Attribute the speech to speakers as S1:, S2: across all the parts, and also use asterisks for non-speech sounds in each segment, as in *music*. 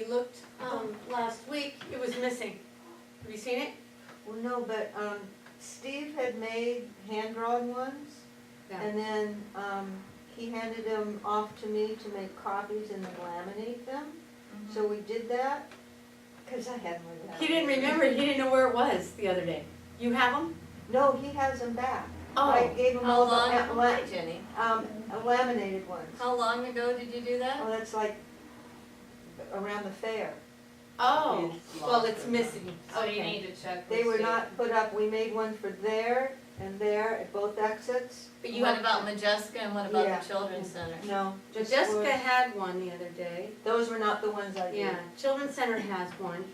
S1: We looked, um, last week, it was missing. Have you seen it?
S2: Well, no, but, um, Steve had made hand-drawn ones, and then, um, he handed them off to me to make copies and then laminate them. So we did that, cause I had one of those.
S1: Mm-hmm. He didn't remember, he didn't know where it was the other day. You have them?
S2: No, he has them back. I
S1: Oh,
S2: gave him
S3: How
S2: all the,
S3: long,
S2: la- la-
S3: hi, Jenny,
S2: um, laminated ones.
S3: how long ago did you do
S2: Oh,
S3: that?
S2: that's like around the fair.
S1: oh, well, it's missing.
S4: So you need to check.
S2: They were not put up, we made one for there and there at both exits.
S1: But you
S3: What
S1: have,
S3: about Majeska and what about
S2: Yeah.
S3: the Children's Center?
S2: No, just for-
S1: Jessica had one the other day.
S2: those were not the ones I did.
S1: Yeah, Children's Center has one,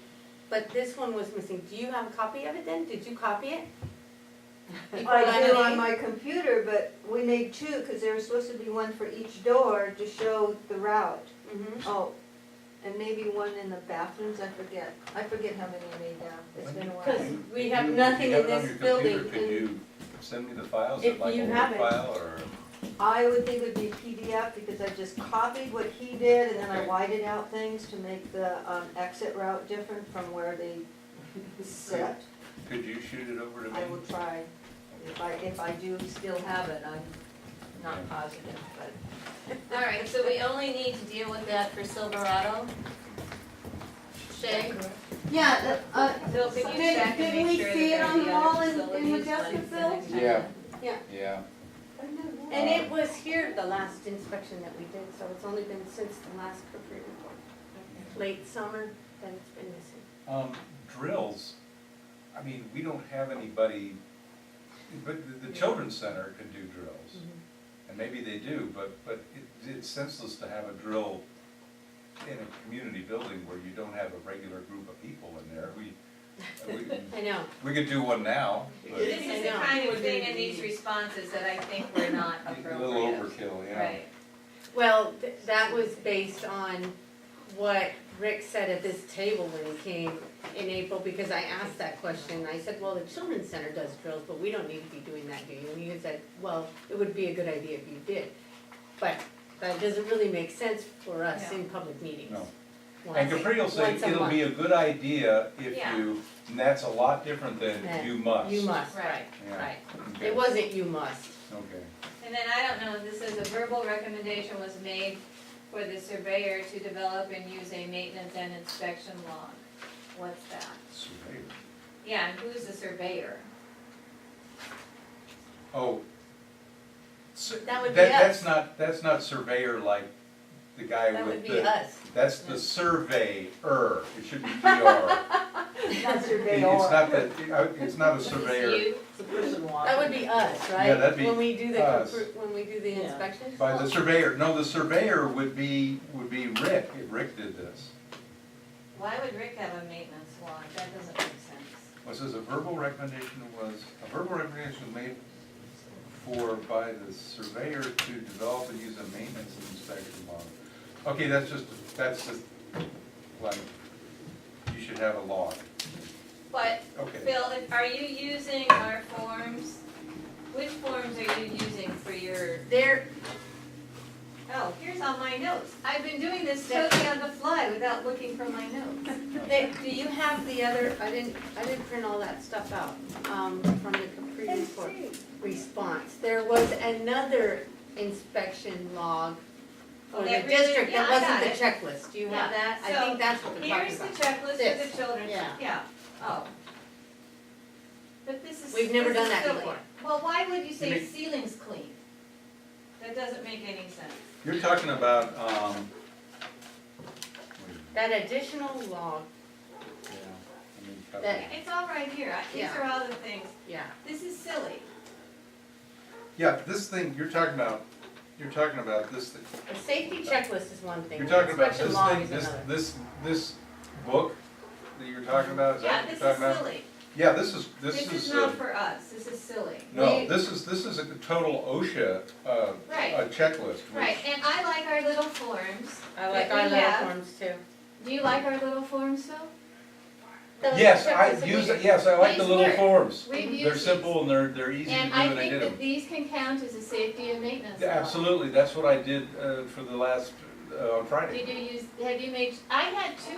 S1: but this one was missing. Do you have a copy of it then? Did you copy it? You
S2: I do on
S1: laminated?
S2: my computer, but we made two, cause there was supposed to be one for each door to show the route.
S1: Mhm.
S2: Oh, and maybe one in the bathrooms, I forget, I forget how many I made now, it's been a
S1: Because
S2: while.
S1: we have nothing in this building.
S5: Could
S1: and-
S5: you send me the files,
S1: If
S5: like a
S1: you
S5: Word
S1: have it.
S5: file or?
S2: I would think it'd be PDF, because I just copied what he did, and then I
S5: Okay.
S2: widened out things to make the, um, exit route different from where they set.
S5: Could you shoot it over to me?
S2: I will try, if I, if I do still have it, I'm not positive, but.
S3: All right, so we only need to deal with that for Silverado. Shay,
S1: Yeah, uh,
S4: Bill, could you check and make sure that there's the other facilities ones in it?
S6: Yeah.
S1: Yeah.
S6: Yeah,
S1: And it was here the last inspection that we did, so it's only been since the last Capri report. Late summer, that it's been missing.
S5: Um, drills, I mean, we don't have anybody, but the, the children's center could do drills.
S1: Mm-hmm.
S5: And maybe they do, but, but it, it's senseless to have a drill in a community building where you don't have a regular group of people in there. We,
S1: *laughs*
S5: we,
S1: I know.
S5: we could do one now, but
S4: This
S5: a
S4: is the kind of thing in these responses that I think were not appropriate.
S5: little overkill, yeah.
S4: Right.
S1: Well, th- that was based on what Rick said at this table when he came in April, because I asked that question. I said, well, the children's center does drills, but we don't need to be doing that, do you? And he said, well, it would be a good idea if you did. But that doesn't really make sense for us in public meetings.
S5: No. And
S1: Once-
S5: Capri will say,
S1: once a
S5: it'll be a good idea if
S4: Yeah.
S5: you, and that's a lot different than
S1: Yeah.
S5: you must.
S1: You must,
S4: Right.
S1: right,
S5: Yeah.
S1: right.
S5: Okay.
S1: It wasn't you must.
S5: Okay.
S4: And then I don't know, this is a verbal recommendation was made for the surveyor to develop and use a maintenance and inspection log. What's that?
S5: Surveyor.
S4: Yeah, and who's the surveyor?
S5: Oh. So,
S1: That would be
S5: that's
S1: us.
S5: not, that's not surveyor like the guy
S1: That would
S5: with
S1: be
S5: the,
S1: us.
S5: that's the surveyor, it should be
S1: *laughs*
S5: DR.
S2: That's your
S5: It-
S2: day
S5: It's
S2: off.
S5: not that, it- uh, it's not a
S4: Is this
S5: surveyor,
S4: you?
S1: That would be us, right?
S5: Yeah, that'd be
S1: When we do the,
S5: us.
S1: Capri- when we do the inspection?
S5: by the surveyor, no, the surveyor would be, would be Rick, if Rick did this.
S4: Why would Rick have a maintenance log? That doesn't make sense.
S5: Was this a verbal recommendation was, a verbal recommendation was made for, by the surveyor to develop and use a maintenance and inspection log. Okay, that's just, that's just, like, you should have a log,
S4: But
S5: okay.
S4: Bill, if- are you using our forms? Which forms are you using for your,
S1: There,
S4: oh, here's all my notes. I've been doing this totally on the fly without looking for my notes.
S1: they, do you have the other, I didn't, I didn't print all that stuff out, um, from the Capri report response. There was another inspection log for the
S4: That really-
S1: district
S4: yeah,
S1: that
S4: I
S1: wasn't
S4: got it.
S1: the checklist, do you have
S4: Yeah,
S1: that? I
S4: so
S1: think that's what we're talking about.
S4: Here's the checklist for
S1: This,
S4: the children,
S1: yeah.
S4: yeah, oh. But this is.
S1: We've never
S4: this is
S1: done that
S4: still-
S1: before.
S4: Well, why would you say
S5: Maybe-
S4: ceiling's clean? That doesn't make any sense.
S5: You're talking about, um,
S1: That additional log,
S5: yeah, let me
S1: That-
S5: cut that.
S4: It's all right here, I- these
S1: Yeah.
S4: are all the things,
S1: yeah,
S4: this is silly.
S5: yeah, this thing, you're talking about, you're talking about this thing,
S1: the safety checklist is one thing,
S5: you're talking
S1: the
S5: about
S1: inspection
S5: this
S1: log
S5: thing,
S1: is
S5: this,
S1: another.
S5: this, this book that you're talking about, is
S4: Yeah,
S5: that what
S4: this
S5: you're
S4: is
S5: talking about?
S4: silly.
S5: Yeah, this is, this is.
S4: This is
S5: uh,
S4: not for us, this is silly.
S5: No,
S1: We-
S5: this is, this is a total OSHA, uh,
S4: Right.
S5: a checklist,
S4: Right,
S5: which,
S4: and I like our little forms.
S1: I like
S4: that
S1: our
S4: we
S1: little
S4: have.
S1: forms too.
S4: Do you like our little forms, Phil?
S1: The
S5: yes,
S1: checklists
S5: I
S1: that
S5: use,
S1: we-
S5: it. yes, I like the
S4: These
S5: little
S4: work.
S5: forms.
S4: We've used
S5: They're
S4: these.
S5: simple and they're, they're easy to do
S4: And I
S5: and I
S4: think
S5: did
S4: that
S5: them.
S4: these can count as a safety and maintenance
S5: Yeah,
S4: log.
S5: Absolutely, that's what I did, uh, for the last, uh, on Friday.
S4: Did you use, have you made, I had two